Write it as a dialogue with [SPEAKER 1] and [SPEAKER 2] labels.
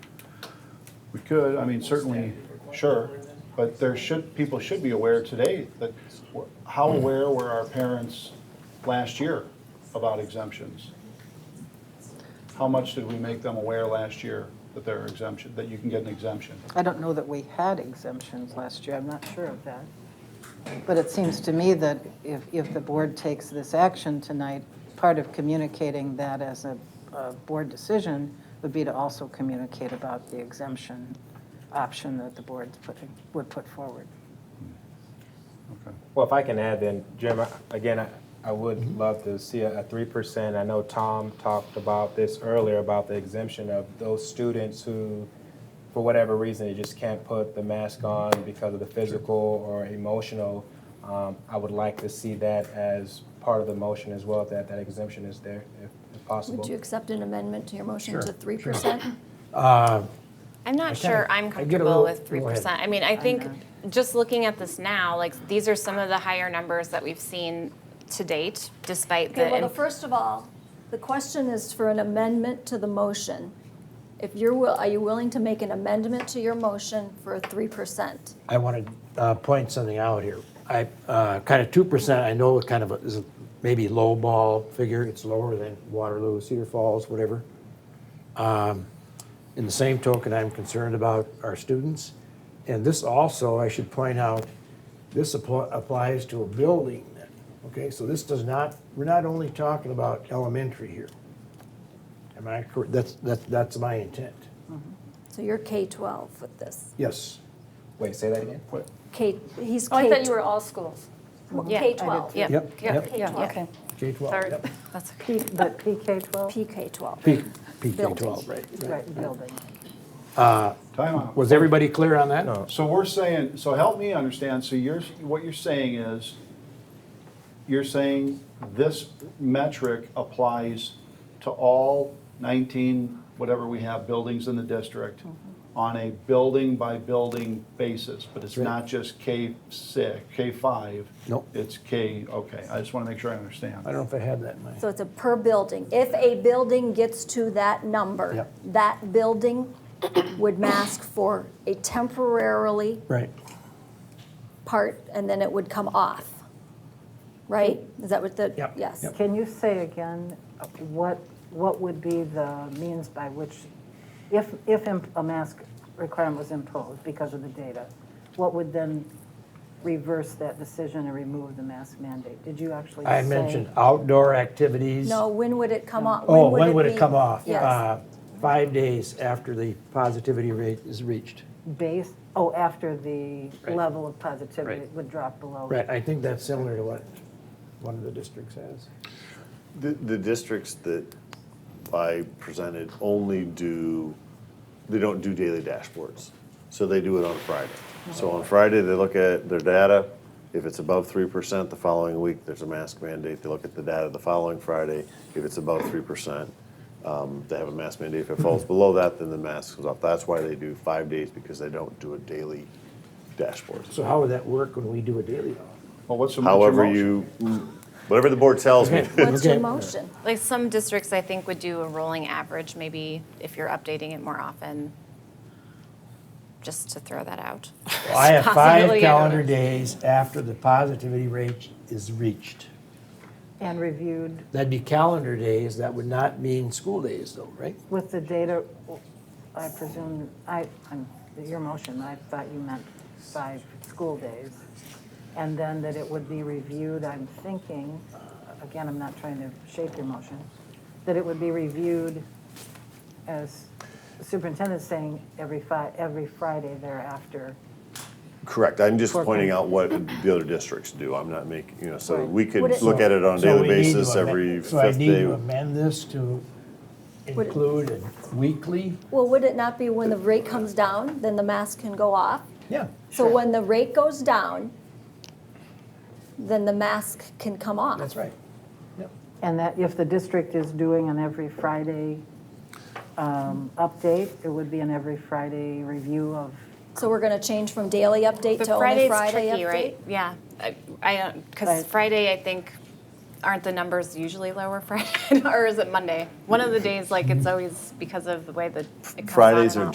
[SPEAKER 1] We could, I mean, certainly, sure, but there should, people should be aware today that, w- how aware were our parents last year about exemptions? How much did we make them aware last year that there are exemption, that you can get an exemption?
[SPEAKER 2] I don't know that we had exemptions last year, I'm not sure of that. But it seems to me that if, if the board takes this action tonight, part of communicating that as a, a board decision would be to also communicate about the exemption option that the board's putting, would put forward.
[SPEAKER 1] Okay.
[SPEAKER 3] Well, if I can add then, Jim, I- again, I- I would love to see a three percent. I know Tom talked about this earlier, about the exemption of those students who, for whatever reason, they just can't put the mask on because of the physical or emotional. Um, I would like to see that as part of the motion as well, that that exemption is there, if- if possible.
[SPEAKER 4] Would you accept an amendment to your motion to three percent?
[SPEAKER 5] I'm not
[SPEAKER 6] Okay.
[SPEAKER 5] sure
[SPEAKER 6] I
[SPEAKER 5] I'm
[SPEAKER 6] get a
[SPEAKER 5] comfortable
[SPEAKER 6] little-
[SPEAKER 5] with three
[SPEAKER 6] go ahead.
[SPEAKER 5] percent. I mean, I think just looking at this now, like, these are some of the higher numbers that we've seen to date, despite the.
[SPEAKER 4] Okay, well,
[SPEAKER 5] in-
[SPEAKER 4] the first of all, the question is for an amendment to the motion. If you're, will, are you willing to make an amendment to your motion for three percent?
[SPEAKER 6] I want to point something out here. I, uh, kind of 2%, I know it kind of is a maybe low ball figure, it's lower than Waterloo, Cedar Falls, whatever. Um, In the same token, I'm concerned about our students. And this also, I should point out, this appl- applies to a building, okay? So this does not, we're not only talking about elementary here. Am I correct? That's, that's, that's my intent.
[SPEAKER 4] So you're K-12 with this.
[SPEAKER 6] Yes.
[SPEAKER 3] Wait, say that again?
[SPEAKER 4] K, he's
[SPEAKER 7] Oh, I thought you
[SPEAKER 4] K,
[SPEAKER 7] were all schools.
[SPEAKER 5] Yeah, I did
[SPEAKER 4] K-12.
[SPEAKER 5] Yeah,
[SPEAKER 6] Yep,
[SPEAKER 5] yeah,
[SPEAKER 6] yep.
[SPEAKER 5] yeah,
[SPEAKER 4] K-12.
[SPEAKER 5] okay.
[SPEAKER 6] K-12,
[SPEAKER 5] Sorry,
[SPEAKER 6] yep.
[SPEAKER 5] that's okay.
[SPEAKER 2] But PK-12?
[SPEAKER 4] PK-12.
[SPEAKER 6] P- PK-12, right.
[SPEAKER 2] Right, building.
[SPEAKER 1] Time out.
[SPEAKER 6] Was everybody clear on that?
[SPEAKER 3] No.
[SPEAKER 1] So we're saying, so help me understand, so you're, what you're saying is, you're saying this metric applies to all nineteen, whatever we have, buildings in the district on a building-by-building basis, but it's
[SPEAKER 6] Right.
[SPEAKER 1] not just K six, K five?
[SPEAKER 6] Nope.
[SPEAKER 1] It's K, okay, I just wanna make sure I understand.
[SPEAKER 6] I don't know if I had that in mind.
[SPEAKER 4] So it's a per building. If a building gets to that number,
[SPEAKER 6] Yep.
[SPEAKER 4] that building would mask for a temporarily
[SPEAKER 6] Right.
[SPEAKER 4] part, and then it would come off, right? Is that what the?
[SPEAKER 6] Yep.
[SPEAKER 4] Yes.
[SPEAKER 6] Yep.
[SPEAKER 2] Can you say again uh, what, what would be the means by which, if, if im- a mask requirement was imposed because of the data, what would then reverse that decision and remove the mask mandate? Did you actually say?
[SPEAKER 6] I mentioned outdoor activities.
[SPEAKER 4] No, when would it come off?
[SPEAKER 6] Oh, when would it
[SPEAKER 4] be-
[SPEAKER 6] come off?
[SPEAKER 4] Yes.
[SPEAKER 6] Uh, Five days after the positivity rate is reached.
[SPEAKER 2] Base, oh, after the
[SPEAKER 6] Right.
[SPEAKER 2] level of positivity
[SPEAKER 6] Right.
[SPEAKER 2] would drop below.
[SPEAKER 6] Right, I think that's similar to what one of the districts has.
[SPEAKER 8] The, the districts that I presented only do, they don't do daily dashboards. So they do it on Friday. So on Friday, they look at their data. If it's above three percent the following week, there's a mask mandate. They look at the data the following Friday. If it's above three percent, um, they have a mask mandate. If it falls below that, then the mask comes off. That's why they do five days because they don't do a daily dashboard.
[SPEAKER 6] So how would that work when we do a daily?
[SPEAKER 1] Well, what's the what's your
[SPEAKER 8] However
[SPEAKER 1] motion?
[SPEAKER 8] you, whatever the board tells me.
[SPEAKER 4] What's your
[SPEAKER 6] Okay.
[SPEAKER 4] motion?
[SPEAKER 5] Like, some districts, I think, would do a rolling average, maybe if you're updating it more often, just to throw that out.
[SPEAKER 6] I
[SPEAKER 5] Possibility, I
[SPEAKER 6] have five
[SPEAKER 5] don't
[SPEAKER 6] calendar
[SPEAKER 5] know.
[SPEAKER 6] days after the positivity rate is reached.
[SPEAKER 2] And reviewed
[SPEAKER 6] That'd be calendar days, that would not mean school days though, right?
[SPEAKER 2] with the data, I presume, I, I'm- your motion, I thought you meant five school days. And then that it would be reviewed, I'm thinking, again, I'm not trying to shape your motion, that it would be reviewed as the superintendent's saying every Fri, every Friday thereafter.
[SPEAKER 8] Correct, I'm just
[SPEAKER 2] For-
[SPEAKER 8] pointing out what the other districts do, I'm not making, you know, so
[SPEAKER 2] Right.
[SPEAKER 8] we could
[SPEAKER 4] Would it-
[SPEAKER 8] look at it on a
[SPEAKER 6] So
[SPEAKER 8] daily
[SPEAKER 6] we need to
[SPEAKER 8] basis,
[SPEAKER 6] amend-
[SPEAKER 8] every
[SPEAKER 6] So I
[SPEAKER 8] fifth
[SPEAKER 6] need to
[SPEAKER 8] day.
[SPEAKER 6] amend this to
[SPEAKER 4] Would it-
[SPEAKER 6] include a weekly?
[SPEAKER 4] Well, would it not be when the rate comes down, then the mask can go off?
[SPEAKER 6] Yeah.
[SPEAKER 4] So when the rate goes down, then the mask can come off.
[SPEAKER 6] That's right. Yep.
[SPEAKER 2] And that if the district is doing an every Friday um, update, it would be an every Friday review of
[SPEAKER 4] So we're gonna change from daily update
[SPEAKER 5] But
[SPEAKER 4] to only Friday update?
[SPEAKER 5] Friday's tricky, right? Yeah, I, I don't, because
[SPEAKER 2] Right.
[SPEAKER 5] Friday, I think, aren't the numbers usually lower Friday, or is it Monday? One of the days, like, it's always because of the way that it comes out
[SPEAKER 8] Fridays
[SPEAKER 5] and
[SPEAKER 8] are
[SPEAKER 5] out.